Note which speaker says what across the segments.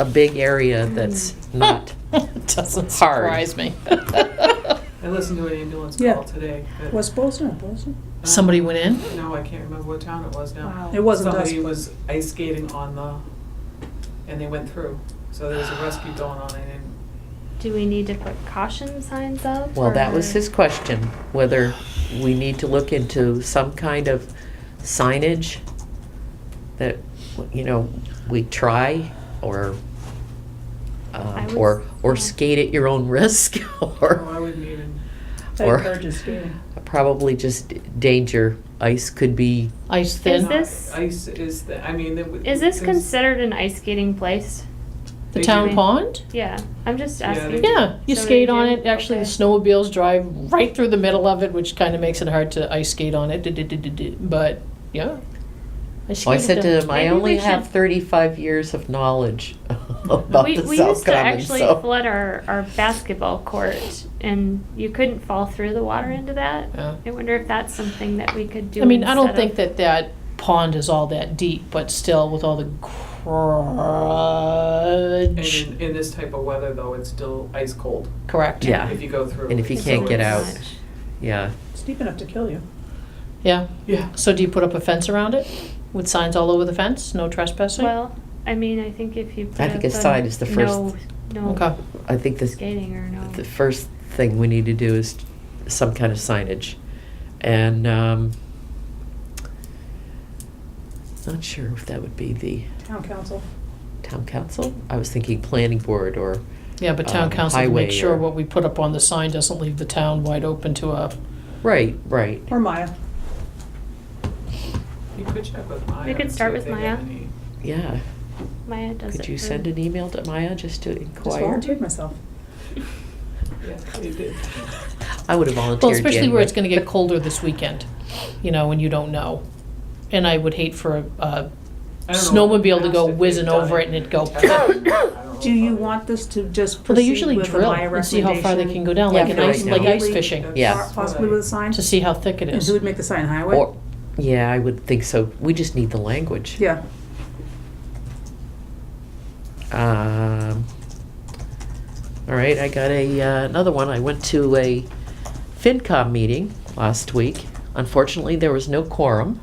Speaker 1: a big area that's
Speaker 2: Hmm.
Speaker 1: not,
Speaker 3: Doesn't
Speaker 1: Hard.
Speaker 3: surprise me.
Speaker 4: I listened to an ambulance
Speaker 5: Yeah.
Speaker 4: call today. that,
Speaker 5: Was Bozeman, or Bozeman?
Speaker 4: um,
Speaker 3: Somebody went in?
Speaker 4: No, I can't remember what town it was now.
Speaker 5: It wasn't us.
Speaker 4: Somebody was ice skating on the, and they went through. So there was a rescue going on and then
Speaker 2: Do we need to put caution signs up?
Speaker 1: well, that
Speaker 2: or-
Speaker 1: was his question, whether we need to look into some kind of signage that, you know, we try or,
Speaker 2: I
Speaker 1: um,
Speaker 2: would-
Speaker 1: or, or
Speaker 2: yeah.
Speaker 1: skate at your own risk
Speaker 4: oh, I
Speaker 1: or,
Speaker 4: wouldn't even,
Speaker 5: I
Speaker 1: Or-
Speaker 5: encourage you skating.
Speaker 1: probably just danger. Ice could be,
Speaker 3: Ice
Speaker 2: Is
Speaker 3: thin?
Speaker 2: it-
Speaker 4: ice
Speaker 2: this-
Speaker 4: is, the- I mean. it would-
Speaker 2: Is this
Speaker 4: there's-
Speaker 2: considered an ice skating place?
Speaker 3: The
Speaker 4: they
Speaker 3: town
Speaker 4: do-
Speaker 3: pond?
Speaker 2: Yeah, I'm just
Speaker 4: Yeah, they
Speaker 2: asking.
Speaker 4: do.
Speaker 3: Yeah, you
Speaker 2: So they
Speaker 3: skate on
Speaker 2: do?
Speaker 3: it. Actually, the
Speaker 2: Okay.
Speaker 3: snowmobiles drive right through the middle of it, which kind of makes it hard to ice skate on it. Du-du-du-du-du. But,
Speaker 1: Oh,
Speaker 3: yeah.
Speaker 1: I said to him, I
Speaker 2: Maybe
Speaker 1: only
Speaker 2: we
Speaker 1: have
Speaker 2: should-
Speaker 1: thirty-five years of knowledge about
Speaker 2: we,
Speaker 1: the
Speaker 2: we
Speaker 1: South
Speaker 2: used to
Speaker 1: Common,
Speaker 2: actually
Speaker 1: so-
Speaker 2: flood our, our basketball court and you couldn't fall through the water into that.
Speaker 3: Yeah.
Speaker 2: I wonder if that's something that we could do.
Speaker 3: I mean, I don't
Speaker 2: instead
Speaker 3: think
Speaker 2: of-
Speaker 3: that that pond is all that deep, but still with all the
Speaker 4: And
Speaker 3: grudge.
Speaker 4: in, in this type of weather though, it's still ice cold
Speaker 3: Correct?
Speaker 1: Yeah.
Speaker 4: if you go through.
Speaker 1: And if you
Speaker 2: It's
Speaker 1: can't get
Speaker 2: always
Speaker 1: out.
Speaker 2: much.
Speaker 1: Yeah,
Speaker 5: It's deep enough to kill you.
Speaker 3: Yeah.
Speaker 4: Yeah.
Speaker 3: So do you put up a fence around it with signs all over the fence? No trespassing?
Speaker 2: Well, I mean, I think if you.
Speaker 1: I
Speaker 2: put
Speaker 1: think
Speaker 2: up
Speaker 1: a sign is the first-
Speaker 2: No,
Speaker 3: Okay.
Speaker 2: no
Speaker 1: I think this,
Speaker 2: skating or no.
Speaker 1: the first thing we need to do is some kind of signage. And, um, not sure if that would be the
Speaker 5: Town council.
Speaker 1: town council. I was thinking planning board or,
Speaker 3: Yeah, but town
Speaker 1: um,
Speaker 3: council to make
Speaker 1: highway
Speaker 3: sure
Speaker 1: or-
Speaker 3: what we put up on the sign doesn't leave the town wide open to a,
Speaker 1: right, right.
Speaker 5: Or Maya.
Speaker 4: You could check with Maya.
Speaker 2: We could
Speaker 4: and see
Speaker 2: start with
Speaker 4: if they have
Speaker 2: Maya.
Speaker 4: any-
Speaker 1: Yeah.
Speaker 2: Maya does it.
Speaker 1: Could you
Speaker 2: for-
Speaker 1: send an email to Maya just to
Speaker 5: Just
Speaker 1: inquire?
Speaker 5: volunteered myself.
Speaker 4: Yeah, they did.
Speaker 1: I would have volunteered.
Speaker 3: well, especially where
Speaker 1: anyway.
Speaker 3: it's gonna get colder this weekend, you know, and you don't know. And I would hate for uh, a,
Speaker 4: I don't know if
Speaker 3: Snowmobile to
Speaker 4: they've
Speaker 3: go
Speaker 4: done
Speaker 3: whizzing over it and it'd go-
Speaker 4: I don't know
Speaker 5: Do you
Speaker 4: if I-
Speaker 5: want this to just
Speaker 3: well, they
Speaker 5: proceed
Speaker 3: usually
Speaker 5: with the
Speaker 3: drill
Speaker 5: Maya recommendation?
Speaker 3: and see how far they can go down,
Speaker 1: Yeah,
Speaker 3: like an
Speaker 1: for
Speaker 3: ice,
Speaker 1: right
Speaker 3: like
Speaker 1: now.
Speaker 3: ice
Speaker 5: Completely-
Speaker 3: fishing,
Speaker 1: Yeah.
Speaker 5: Possibly with a sign?
Speaker 3: to see how thick it
Speaker 5: And
Speaker 3: is.
Speaker 5: who would make the sign, highway?
Speaker 1: Or, yeah, I would think so. We just need the language.
Speaker 5: Yeah.
Speaker 1: Um, all right, I got a uh, another one. I went to a FinCom meeting last week. Unfortunately, there was no quorum.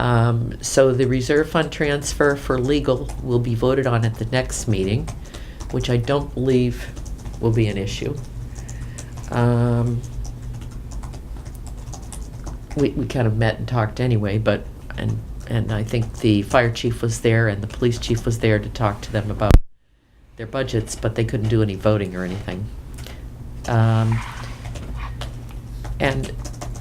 Speaker 1: Um, so the reserve fund transfer for legal will be voted on at the next meeting, which I don't believe will be an issue. Um, we, we kind of met and talked anyway, but, and, and I think the fire chief was there and the police chief was there to talk to them about their budgets, but they couldn't do any voting or anything. Um, and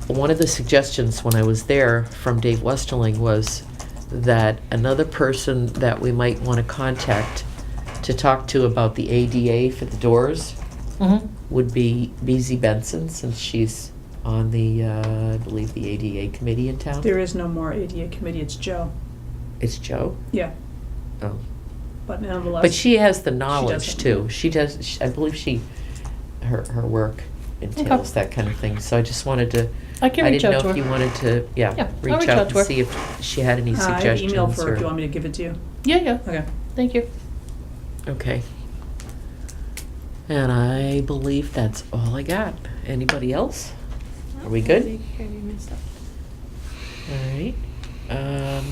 Speaker 1: one of the suggestions when I was there from Dave Westerling was that another person that we might want to contact to talk to about the ADA for the doors
Speaker 3: Mhm.
Speaker 1: would be BZ Benson, since she's on the, uh, I believe, the ADA committee in town.
Speaker 5: There is no more ADA committee, it's Joe.
Speaker 1: It's Joe.
Speaker 5: Yeah,
Speaker 1: Oh.
Speaker 5: but nonetheless.
Speaker 1: But she has the knowledge
Speaker 5: doesn't.
Speaker 1: too. She does, she- I believe she, her, her work entails that kind of thing. So I just wanted to,
Speaker 3: I can
Speaker 1: I
Speaker 3: reach out
Speaker 1: didn't
Speaker 3: to
Speaker 1: know
Speaker 3: her.
Speaker 1: if you wanted to,
Speaker 3: Yeah,
Speaker 1: yeah,
Speaker 3: I'll
Speaker 1: reach out
Speaker 3: to her.
Speaker 1: and see if she had any
Speaker 5: Uh, I have
Speaker 1: suggestions
Speaker 5: email for, her.
Speaker 1: or-
Speaker 5: do you want me to give it to you?
Speaker 3: Yeah, yeah,
Speaker 5: Okay.
Speaker 3: thank you.
Speaker 1: Okay. And I believe that's all I got. Anybody else? Are we good?
Speaker 2: I think Oh, I messed up.
Speaker 1: All right. Um,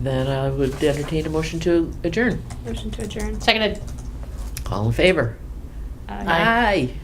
Speaker 1: then I would entertain a motion to adjourn.
Speaker 2: Motion to adjourn.
Speaker 3: Seconded.
Speaker 1: All in favor?
Speaker 2: Uh,
Speaker 3: Aye.
Speaker 1: Aye.